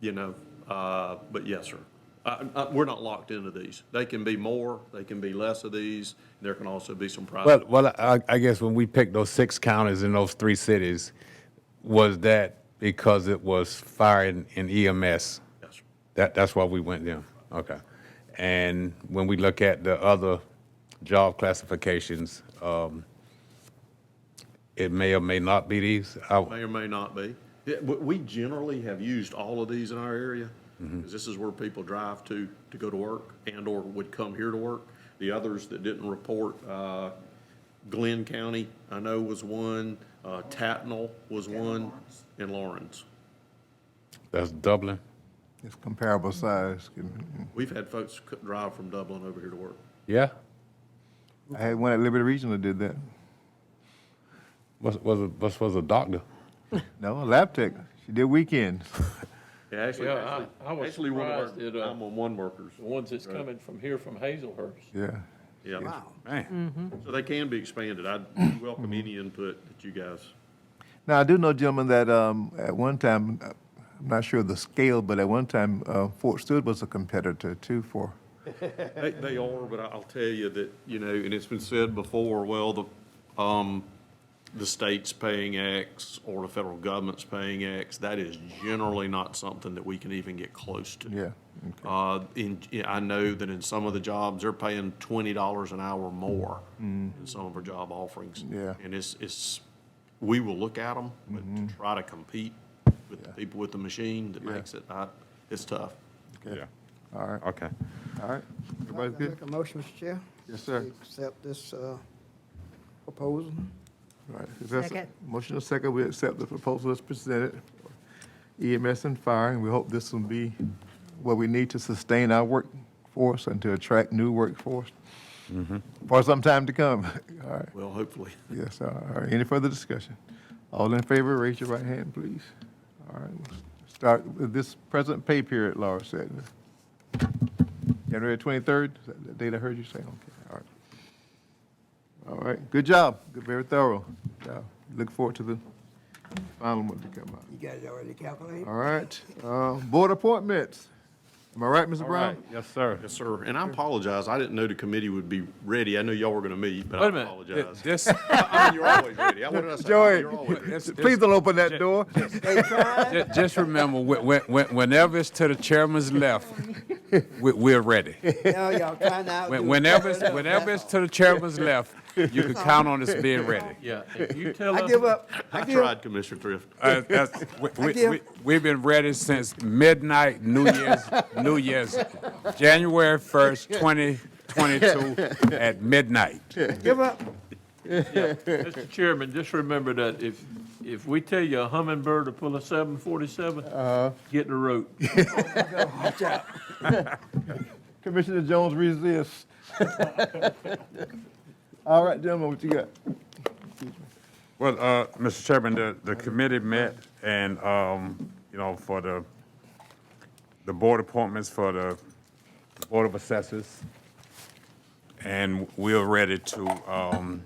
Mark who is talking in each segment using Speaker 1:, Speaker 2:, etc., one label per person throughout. Speaker 1: you know, uh, but yes, sir. Uh, uh, we're not locked into these. They can be more, they can be less of these. There can also be some
Speaker 2: Well,
Speaker 1: private.
Speaker 2: well, I, I guess when we picked those six counties in those three cities, was that because it was fire and and EMS?
Speaker 1: Yes, sir.
Speaker 2: That, that's why we went there. Okay. And when we look at the other job classifications, um, it may or may not be these. I,
Speaker 1: May or may not be. Yeah, We we generally have used all of these in our area, because this is where people drive to, to go to work and/or would come here to work. The others that didn't report, uh, Glenn County, I know was one, uh, Tatnall was one, and Lawrence.
Speaker 2: that's Dublin.
Speaker 3: It's comparable size.
Speaker 1: We've had folks c- drive from Dublin over here to work.
Speaker 2: Yeah?
Speaker 3: I had one at Liberty Regional that did that.
Speaker 2: Was, was, a- was, was a doctor?
Speaker 3: No, Lab Tech. She did weekends.
Speaker 1: Yeah, actually,
Speaker 4: Yeah, I-
Speaker 1: actually,
Speaker 4: I was
Speaker 1: actually one of
Speaker 4: surprised
Speaker 1: our
Speaker 4: at, uh,
Speaker 1: nine-one-one workers,
Speaker 4: The ones that's coming from here, from Hazelhurst.
Speaker 3: Yeah.
Speaker 1: yeah.
Speaker 2: Man.
Speaker 1: So they can be expanded. I welcome any input that you guys,
Speaker 3: Now, I do know, gentlemen, that um, at one time, uh, I'm not sure of the scale, but at one time, uh, Fort Stewart was a competitor too for.
Speaker 1: they, they are, but I- I'll tell you that, you know, and it's been said before, well, the, um, the state's paying X or the federal government's paying X, that is generally not something that we can even get close to.
Speaker 3: Yeah.
Speaker 1: Uh, in, yeah, I know that in some of the jobs, they're paying twenty dollars an hour more in some of our job offerings.
Speaker 3: Mm-hmm. Yeah. Mm-hmm.
Speaker 1: And it's, it's, we will look at them, but to try to compete with the people with the machine that makes it, I, it's tough.
Speaker 2: Yeah.
Speaker 3: All right.
Speaker 2: Okay.
Speaker 3: All right. Everybody's
Speaker 5: I'll
Speaker 3: good?
Speaker 5: Make a motion, Mr. Chair.
Speaker 3: Yes, sir.
Speaker 5: We Accept this uh, proposal.
Speaker 3: All right. Is there a se-
Speaker 6: Second.
Speaker 3: Motion and second, we accept the proposal as presented. EMS and fire, and we hope this will be what we need to sustain our workforce and to attract new workforce for some time to come. All right.
Speaker 1: Well, hopefully.
Speaker 3: Yes, all right. Any further discussion? All in favor, raise your right hand, please. All right, we'll start with this present pay period, Laura said. January 23rd, is that the date I heard you say? Okay, all right. All right, good job. Good, Very thorough. Good job. Look forward to the final one to come out.
Speaker 5: You guys already calculated?
Speaker 3: All right, uh, board appointments. Am I right, Mr.
Speaker 2: All right.
Speaker 3: Brown?
Speaker 2: Yes, sir.
Speaker 1: Yes, sir. And I apologize. I didn't know the committee would be ready. I knew y'all were gonna meet, but I
Speaker 4: Wait a minute.
Speaker 2: Th-
Speaker 1: apologize.
Speaker 2: This,
Speaker 1: I mean, you're always ready. I- What did I say?
Speaker 3: Joey.
Speaker 1: You're always ready.
Speaker 2: this-
Speaker 3: Please don't open that door.
Speaker 2: Ju- Just remember, whe- whe- whe- whenever it's to the chairman's left, we- we're ready.
Speaker 5: Now y'all trying to outdo.
Speaker 2: When-
Speaker 5: each
Speaker 2: Whenever, it's-
Speaker 5: other.
Speaker 2: whenever it's to the chairman's left, you can count on us being ready.
Speaker 4: Yeah, if you tell
Speaker 5: I give
Speaker 4: them,
Speaker 5: up.
Speaker 1: I
Speaker 5: give
Speaker 1: tried, Commissioner Thrift.
Speaker 2: Uh, that's- we- we-
Speaker 5: give-
Speaker 2: we- We've been ready since midnight, New Year's, New Year's, January 1st, 2022, at midnight.
Speaker 5: Give up.
Speaker 4: Mr. Chairman, just remember that if, if we tell you a hummingbird to pull a seven forty-seven,
Speaker 5: Uh.
Speaker 3: Uh-huh.
Speaker 4: get the rope.
Speaker 5: Watch out.
Speaker 3: Commissioner Jones resists. All right, gentlemen, what you got?
Speaker 2: Well, uh, Mr. Chairman, the, the committee met and, um, you know, for the, the board appointments for the Board of Assessors. And we're ready to, um,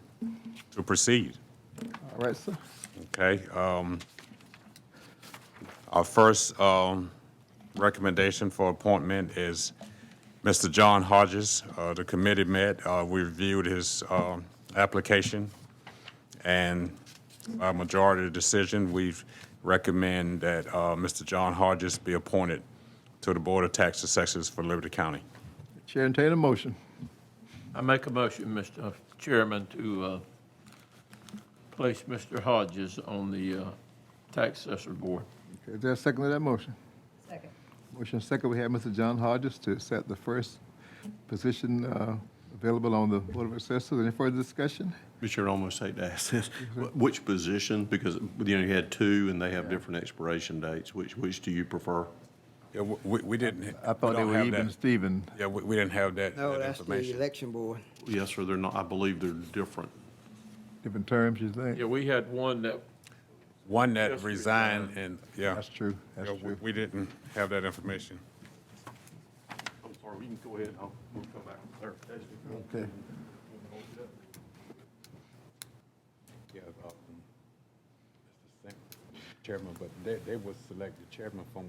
Speaker 2: to proceed,
Speaker 3: All right, sir.
Speaker 2: okay? Um, our first, um, recommendation for appointment is Mr. John Hodges. Uh, the committee met, uh, we reviewed his, um, application. And by majority decision, we recommend that uh, Mr. John Hodges be appointed to the Board of Tax Assessors for Liberty County.
Speaker 3: Chair entertain a motion.
Speaker 4: I make a motion, Mr. Chairman, to, uh, place Mr. Hodges on the, uh, tax assessor board.
Speaker 3: Okay, is there a second to that motion? Second. Motion second, we have Mr. John Hodges to accept the first position uh, available on the Board of Assessors. Any further discussion?
Speaker 1: Mr. Chairman, I almost hate to ask this. Wh- Which position, because, you know, you had two and they have different expiration dates. Which, which do you prefer?
Speaker 2: Yeah, w- We we didn't,
Speaker 3: I
Speaker 2: we
Speaker 3: thought they
Speaker 2: don't
Speaker 3: were
Speaker 2: have
Speaker 3: even,
Speaker 2: that.
Speaker 3: Stephen.
Speaker 2: Yeah, we we didn't have that
Speaker 5: No,
Speaker 2: that
Speaker 5: that's the
Speaker 2: information.
Speaker 5: election board.
Speaker 1: Yes, sir, they're not, I believe they're different.
Speaker 3: Different terms, you
Speaker 4: Yeah,
Speaker 3: think?
Speaker 4: we had one that,
Speaker 2: One that
Speaker 4: Just
Speaker 2: resigned and, yeah.
Speaker 3: That's true, that's
Speaker 2: Yeah, we-
Speaker 3: true.
Speaker 2: We didn't have that information.
Speaker 1: I'm sorry, we can go ahead. I'll, we'll come back with clarification.
Speaker 3: Okay.
Speaker 2: Chairman, but they was selected chairman from